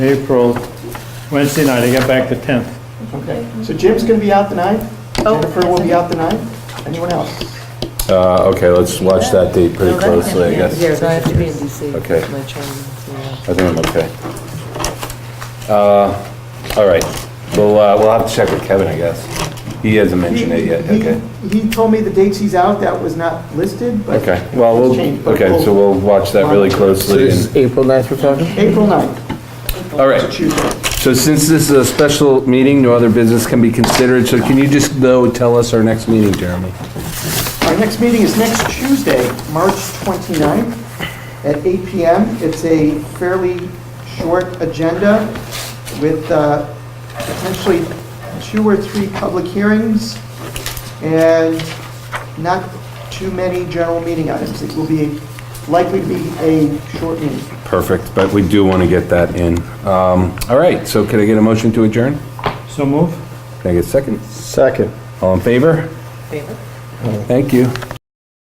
April, Wednesday night, I got back the 10th. Okay, so Jim's gonna be out the ninth, Jennifer will be out the ninth, anyone else? Uh, okay, let's watch that date pretty No, that can't closely, I be. guess. Yeah, so I have to be in DC. Okay. It's My training, so, yeah. I think I'm okay. Uh, all right, we'll, uh, we'll have to check with Kevin, I guess. He hasn't mentioned it yet, He- okay. He he told me the dates he's out, that was not listed, but. Okay, well, we'll, Change, but okay, so we'll watch that really closely. and- April 9th we're talking? April ninth, All right, Tuesday. so since this is a special meeting, no other business can be considered, so can you just, though, tell us our next meeting, Jeremy? Our next meeting is next Tuesday, March 29th, at 8 PM. It's a fairly short agenda with uh, potentially two or three public hearings and not too many general meeting items. It will be, likely to be a short meeting. Perfect, but we do want to get that in. Um, all right, so can I get a motion to adjourn? So move? Can I get a second? Second. All in favor? Favor? Thank you.